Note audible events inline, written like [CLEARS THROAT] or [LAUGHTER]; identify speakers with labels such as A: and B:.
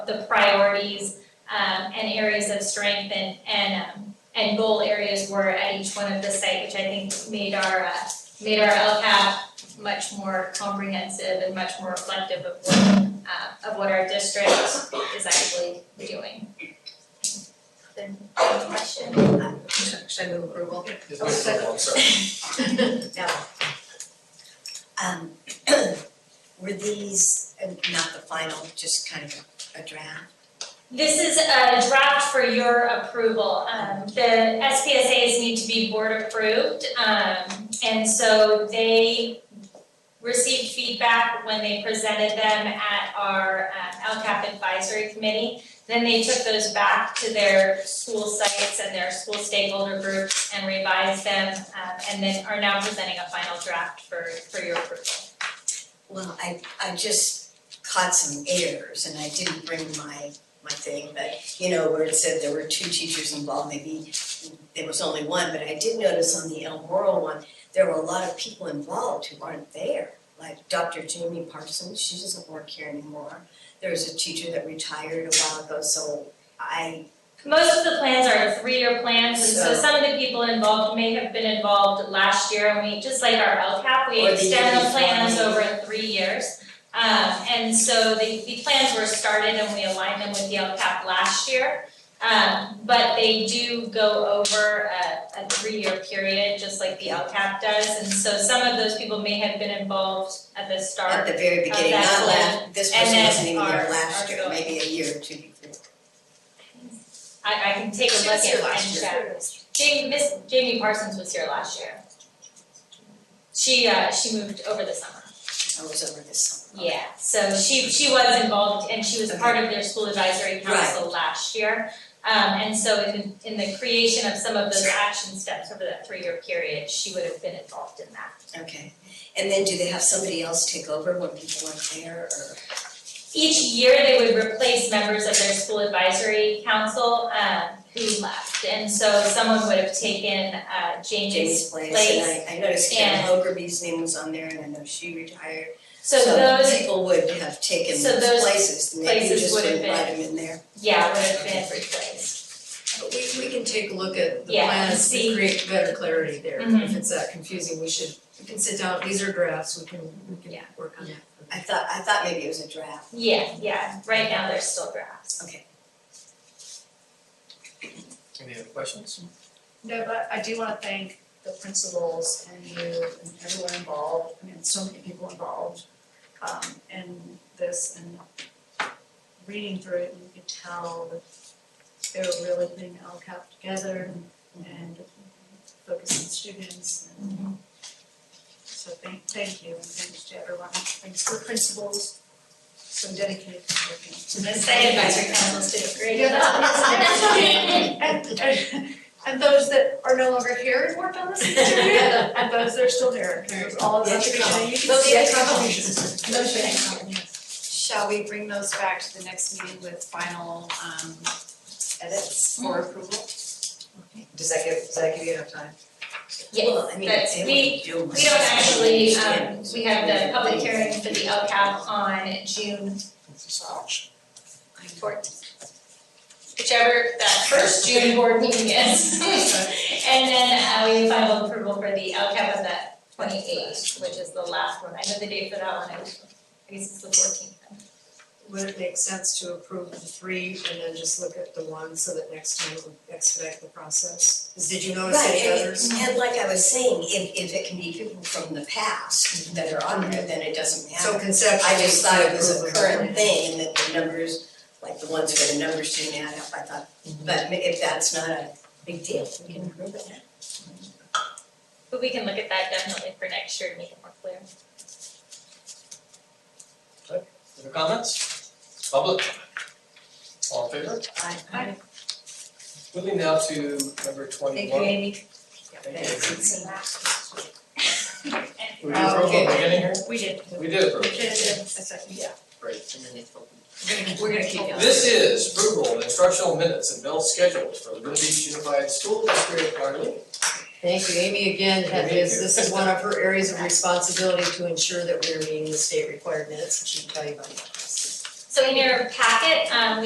A: the priorities um, and areas of strength and, and, um, and goal areas were at each one of the site, which I think made our, uh, made our LCAP much more comprehensive and much more reflective of what, uh, of what our district is actually doing. Then, any question?
B: Should should I move approval?
C: Yes, ma'am.
B: Second.
C: I'm sorry.
B: Um, [CLEARS THROAT] were these, uh, not the final, just kind of a draft?
A: This is a draft for your approval. Um, the SPSAs need to be board approved. Um, and so they received feedback when they presented them at our uh, LCAP advisory committee. Then they took those back to their school sites and their school stakeholder groups and revised them. um, and then are now presenting a final draft for, for your approval.
B: Well, I, I just caught some errors and I didn't bring my, my thing, but you know, where it said there were two teachers involved, maybe there was only one, but I did notice on the El Moro one, there were a lot of people involved who aren't there. Like Dr. Jamie Parsons, she doesn't work here anymore. There was a teacher that retired a while ago, so I
A: Most of the plans are three-year plans, and so
B: So-
A: some of the people involved may have been involved last year, and we, just like our LCAP, we
B: Or the year
A: extend the
B: before,
A: plans
B: maybe.
A: over three years. Um, and so the, the plans were started and we aligned them with the LCAP last year. Um, but they do go over a, a three-year period, just like the LCAP does, and so some of those people may have been involved at the start.
B: At the very
A: of
B: beginning,
A: that
B: not
A: goal,
B: last, this
A: and
B: person
A: then
B: wasn't even there
A: our-
B: last
A: our
B: year,
A: goal.
B: maybe a year or two before.
A: I, I can take a
B: She
A: look
B: was here
A: at
B: last
A: and
B: year.
A: check. Jamie, Miss Jamie Parsons was here last year. She, uh, she moved over the summer.
B: I oh, was over this summer.
A: Yeah, so she, she was involved and she was a part of their school advisory council last year. Um, and so in, in the creation of some of those action steps over that three-year period, she would have been involved in that.
B: Okay, and then do they have somebody else take over when people aren't there or?
A: Each year, they would replace members of their school advisory council, um, who left. And so someone would have taken, uh, Jamie's
B: Jamie's place,
A: place
B: and I, I noticed Karen
A: and-
B: Hogerby's name was on there and I know she retired.
A: So those,
B: people would have taken
A: so
B: those
A: those
B: places, and maybe you
A: places
B: just
A: would have
B: wouldn't invite
A: been-
B: them in there.
A: yeah, would have been replaced.
D: But we, we can take a look at the
A: Yeah,
D: plans
A: see.
D: to create better clarity there. If
A: Mhm.
D: it's that confusing, we should, we can sit down, these are drafts, we can, we
A: Yeah.
D: can work on it.
B: I thought, I thought maybe it was a draft.
A: Yeah, yeah, right now they're still drafts.
C: Any other questions?
E: No, but I do wanna thank the principals and you and everyone involved, I mean, so many people involved um in this and reading through it, you could tell that they were really putting LCAP together and focusing on students
A: Mm-hmm.
E: and so thank thank you and thanks to everyone, thanks to the principals, so dedicated to working.
A: The site advisory councils did a great
E: Yeah, that's- that's-
A: job.
E: that's okay. And, and those that are no longer here and worked on
F: [LAUGHS]
E: this interview, and those that are still here, there's all of
B: Yeah,
E: us,
B: you
E: you
B: come.
E: know, you can
B: Those
E: see
B: that
E: it.
B: come.
E: Those that come.
F: Shall we bring those back to the next meeting with final um edits for
E: Mm-hmm.
F: approval?
D: Does that give, does that give you enough time?
A: Yeah,
B: Well, I mean,
A: that's-
B: they
A: we-
B: wouldn't do much.
A: [LAUGHS] we don't actually, um, we have the public hearing for the LCAP on June fourteenth. Whichever that first June board meeting is. [LAUGHS] And then uh, we have final approval for the LCAP of that twenty-eighth, which is the last one. I know the date for that one, I guess it's the fourteenth.
D: Would it make sense to approve the three and then just look at the one so that next time it would expedite the process? Did you notice
B: Right,
D: any
B: and
D: others?
B: it- and like I was saying, if if it can be people from the past that are on there, then it doesn't
D: So
B: matter.
D: conceptually,
B: I just thought it was
D: approve
B: a
D: of
B: current thing and that the numbers, like the ones where the numbers didn't add up, I thought, but ma- if that's not a big deal, we can prove it.
A: But we can look at that definitely for next year to make it more clear.
C: Other comments? Public comment? All in favor?
B: I
C: Moving now to number twenty-one.
B: think Amy.
C: Thank you. We did approve
E: Uh,
C: at the
E: okay.
C: beginning here?
E: We did.
C: We did approve.
E: Yeah.
C: Great.
D: We're gonna keep going.
C: This is approval of instructional minutes and bill schedules for the Boone Beach Unified School District, Marlene.
D: Thank you, Amy again,
C: Thank
D: that is,
C: you.
D: this is one of her areas of responsibility to ensure that we are meeting the state required minutes, and she can tell you about that.
A: So in your packet, um,